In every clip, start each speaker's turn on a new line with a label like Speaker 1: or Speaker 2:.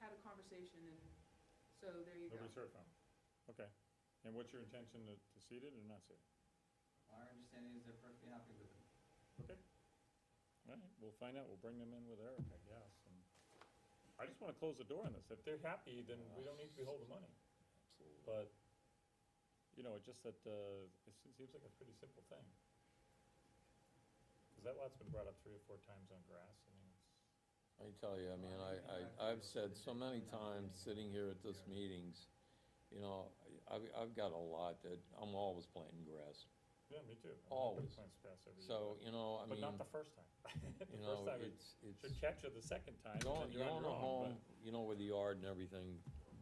Speaker 1: conversation and, so there you go.
Speaker 2: Nobody's heard from him. Okay. And what's your intention to, to seat it or not seat it?
Speaker 3: Our understanding is they're perfectly happy with it.
Speaker 2: Okay. All right, we'll find out. We'll bring them in with Eric, I guess. and- I just want to close the door on this. If they're happy, then we don't need to be holding money. But, you know, it just that, uh, it se- seems like a pretty simple thing. Because that lot's been brought up three or four times on grass. I mean, it's,
Speaker 4: I tell you, I mean, I, I, I've said so many times, sitting here at this meetings, you know, I- I've, I've got a lot that, I'm always planting grass.
Speaker 2: yeah, me too. I mean, everybody
Speaker 4: Always.
Speaker 2: Plants grass every year.
Speaker 4: So, you know, I
Speaker 2: But
Speaker 4: mean,
Speaker 2: not the first time. The
Speaker 4: you
Speaker 2: first
Speaker 4: know,
Speaker 2: time
Speaker 4: it's, it's,
Speaker 2: Should catch you the second time. and
Speaker 4: you
Speaker 2: then
Speaker 4: own, you own a
Speaker 2: you're on your own,
Speaker 4: home, you know, with a yard and everything,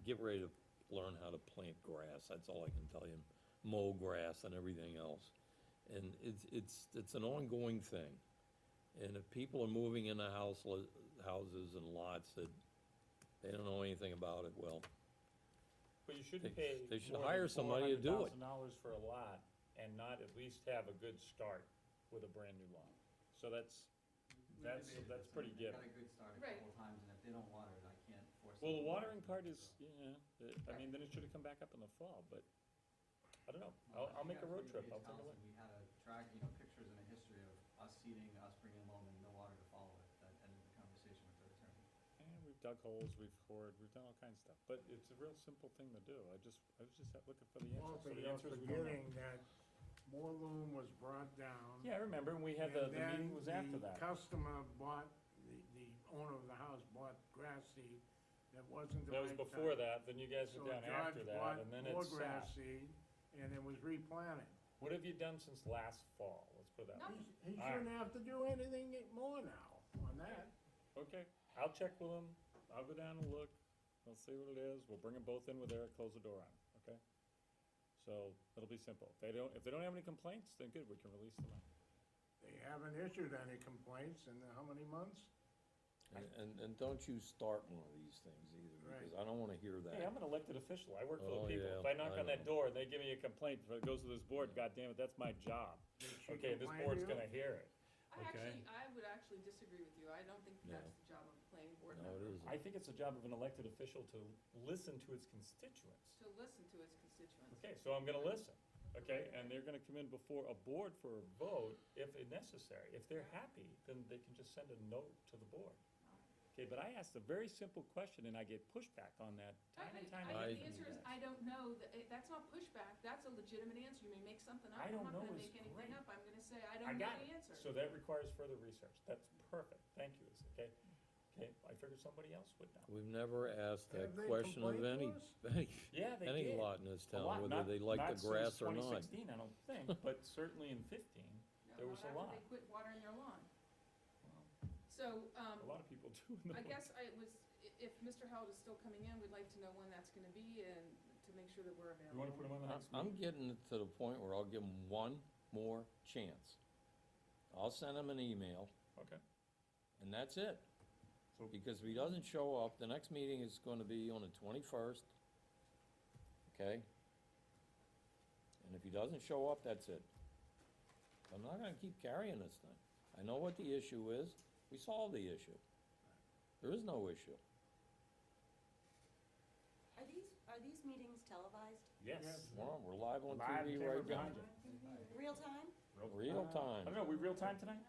Speaker 4: get ready to learn how to plant grass, that's all I can tell you. Mow grass and everything else. And it's, it's, it's an ongoing thing. And if people are moving into house, houses and lots that they don't know anything about it, well,
Speaker 2: but- But you shouldn't
Speaker 4: They-
Speaker 2: pay.
Speaker 4: they should hire somebody to do it.
Speaker 2: dollars for a lot and not at least have a good start with a brand new lot. So that's,
Speaker 3: We
Speaker 2: That's-
Speaker 3: debated
Speaker 2: that's
Speaker 3: this.
Speaker 2: pretty
Speaker 3: I mean, They
Speaker 2: given.
Speaker 3: got a good start a
Speaker 1: Right.
Speaker 3: couple times, and if they don't water it, I can't force them.
Speaker 2: well, the
Speaker 3: to water
Speaker 2: watering
Speaker 3: it,
Speaker 2: part
Speaker 3: so.
Speaker 2: is, yeah, I mean, then it should have come back up in the fall, but I don't know. I'll,
Speaker 3: Well, I
Speaker 2: I'll
Speaker 3: think
Speaker 2: make a
Speaker 3: after
Speaker 2: road
Speaker 3: we
Speaker 2: trip.
Speaker 3: did
Speaker 2: I'll take a look.
Speaker 3: Townsend, We had a track, you know, pictures and a history of us seeding, us bringing loam and no water to follow it. That ended the conversation with the attorney.
Speaker 2: And we've dug holes, we've cored, we've done all kinds of stuff, but it's a real simple thing to do. I just, I was just looking for the answer.
Speaker 5: Also,
Speaker 2: So the
Speaker 5: you're
Speaker 2: answer is we don't know.
Speaker 5: forgetting that more loom was brought down.
Speaker 2: Yeah, I remember, and we had the,
Speaker 5: and
Speaker 2: the meeting was
Speaker 5: then
Speaker 2: after
Speaker 5: The
Speaker 2: that.
Speaker 5: customer bought, the, the owner of the house bought grass seed that wasn't the
Speaker 2: That
Speaker 5: right
Speaker 2: was
Speaker 5: type.
Speaker 2: before that, then you guys were down after
Speaker 5: So George bought
Speaker 2: that, and then
Speaker 5: more
Speaker 2: it
Speaker 5: grass
Speaker 2: sat.
Speaker 5: seed, and it was replanted.
Speaker 2: What have you done since last fall? Let's put it that way.
Speaker 5: He he
Speaker 2: All right.
Speaker 5: shouldn't have to do anything more now on that.
Speaker 2: Okay, I'll check with them, I'll go down and look, we'll see what it is, we'll bring them both in with Eric, close the door on 'em, okay? So, it'll be simple. If they don't, if they don't have any complaints, then good, we can release them.
Speaker 5: They haven't issued any complaints in how many months?
Speaker 4: and, and, and don't you start one of these things either, because I don't wanna hear
Speaker 2: Hey, I'm
Speaker 4: that.
Speaker 2: an elected official, I work for the
Speaker 4: Oh,
Speaker 2: people.
Speaker 4: yeah,
Speaker 2: If I knock
Speaker 4: I
Speaker 2: on that
Speaker 4: know.
Speaker 2: door and they give me a complaint, if it goes to this board, God damn it, that's my job.
Speaker 5: should
Speaker 2: Okay, this
Speaker 5: complain to
Speaker 2: board's
Speaker 5: you.
Speaker 2: gonna hear it.
Speaker 1: I
Speaker 2: Okay.
Speaker 1: actually, I would actually disagree with you. I don't think
Speaker 4: No.
Speaker 1: that's the job of a planning board
Speaker 4: No, it
Speaker 1: member,
Speaker 4: isn't.
Speaker 2: I think it's the job of an elected official to listen to its constituents.
Speaker 1: to listen to its constituents.
Speaker 2: Okay, so I'm gonna listen, okay, and they're gonna come in before a board for a vote if necessary. If they're happy, then they can just send a note to the board. Okay, but I asked a very simple question and I get pushback on that time
Speaker 1: I-
Speaker 2: and time
Speaker 1: I,
Speaker 2: again.
Speaker 1: the
Speaker 4: I-
Speaker 1: answer is, I don't know, Th- eh, that's not pushback, that's a legitimate answer, you may make something up,
Speaker 2: I
Speaker 1: I'm
Speaker 2: don't
Speaker 1: not
Speaker 2: know
Speaker 1: gonna
Speaker 2: is
Speaker 1: make anything
Speaker 2: great.
Speaker 1: up, I'm gonna say, I
Speaker 2: I
Speaker 1: don't know
Speaker 2: got
Speaker 1: the
Speaker 2: it.
Speaker 1: answer.
Speaker 2: So that requires further research. That's perfect. Thank you, Lisa, okay? Okay, I figured somebody else would know.
Speaker 4: We've never asked that
Speaker 5: Have they
Speaker 4: question of any,
Speaker 5: complained to
Speaker 4: any,
Speaker 2: Yeah, they
Speaker 4: any
Speaker 2: did.
Speaker 4: lot in this
Speaker 2: A lot,
Speaker 4: town, whether
Speaker 2: not-
Speaker 4: they like the grass or
Speaker 2: Not
Speaker 4: not.
Speaker 2: since 2016, I don't think, but certainly in 15,
Speaker 1: No,
Speaker 2: there
Speaker 1: not
Speaker 2: was a
Speaker 1: after
Speaker 2: lot.
Speaker 1: They quit watering their lawn.
Speaker 2: Well,
Speaker 1: So, um,
Speaker 2: A lot of people do in the.
Speaker 1: I guess I was, i- if Mr. Howard is still coming in, we'd like to know when that's gonna be and to make sure that we're available.
Speaker 2: You wanna put them on the
Speaker 4: I-
Speaker 2: next
Speaker 4: I'm
Speaker 2: meeting?
Speaker 4: getting to the point where I'll give them one more chance. I'll send him an email,
Speaker 2: Okay.
Speaker 4: and that's it.
Speaker 2: So-
Speaker 4: Because if he doesn't show up, the next meeting is gonna be on the twenty-first, okay? And if he doesn't show up, that's it. I'm not gonna keep carrying this thing. I know what the issue is, we solved the issue. There is no issue.
Speaker 6: Are these, are these meetings televised?
Speaker 2: Yes.
Speaker 4: We're, we're live on
Speaker 2: Live
Speaker 4: TV
Speaker 2: camera
Speaker 4: right
Speaker 2: behind
Speaker 4: now,
Speaker 2: you.
Speaker 6: Real time?
Speaker 4: real
Speaker 2: I don't
Speaker 4: time.
Speaker 2: know, we real time tonight?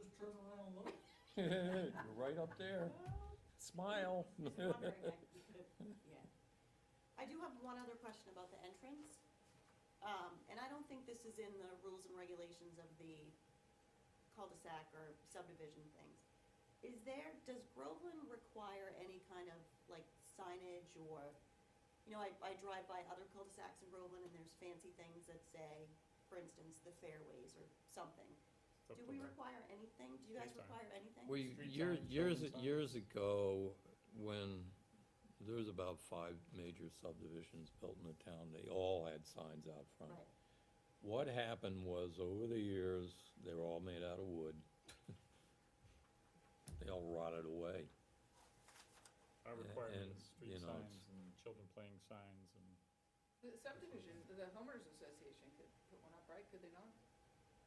Speaker 3: Just turn around and look.
Speaker 4: You're right up there, smile.
Speaker 6: Oh, Just wondering, I- you could've- yeah. I do have one other question about the entrance. Um, and I don't think this is in the rules and regulations of the cul-de-sac or subdivision things. Is there, does Groveland require any kind of like signage or, you know, I, I drive by other cul-de-sacs in Groveland and there's fancy things that say, for instance, the fairways or something. Do we require anything? Do you guys
Speaker 2: Street sign.
Speaker 6: require anything?
Speaker 4: We,
Speaker 2: Street
Speaker 4: year-
Speaker 2: signs,
Speaker 4: years,
Speaker 2: building signs.
Speaker 4: years ago, when there was about five major subdivisions built in the town, they all had signs out front.
Speaker 6: Right.
Speaker 4: What happened was, over the years, they were all made out of wood. They all rotted away. Yeah,
Speaker 2: I require
Speaker 4: and,
Speaker 2: street
Speaker 4: you know, it's-
Speaker 2: signs and children playing signs and,
Speaker 1: The subdivision, the homeowners association could put one up, right, could they not?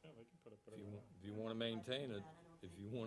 Speaker 2: yeah, they can put up
Speaker 4: If
Speaker 2: whatever they
Speaker 4: you,
Speaker 2: want.
Speaker 4: if you wanna maintain it,
Speaker 6: I don't
Speaker 4: if
Speaker 6: think-
Speaker 4: you wanna